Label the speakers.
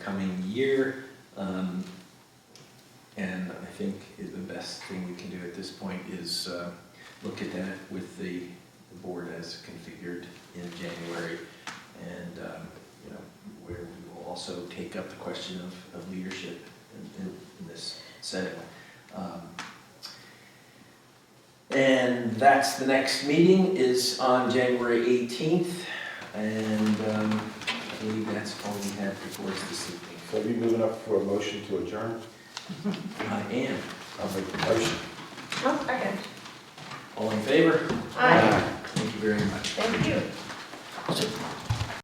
Speaker 1: coming year. Um, And I think is the best thing we can do at this point is uh, look at that with the the board as configured in January. And, um, you know, where we will also take up the question of, of leadership in- in, in this setting. Um, And that's, the next meeting is on January 18th. And um, I believe that's all we have before us this evening.
Speaker 2: So are you moving up for a motion to adjourn?
Speaker 1: I am.
Speaker 2: I'll make the motion.
Speaker 3: Oh, second.
Speaker 1: All in favor?
Speaker 3: Aye.
Speaker 1: Thank you very much.
Speaker 3: Thank you.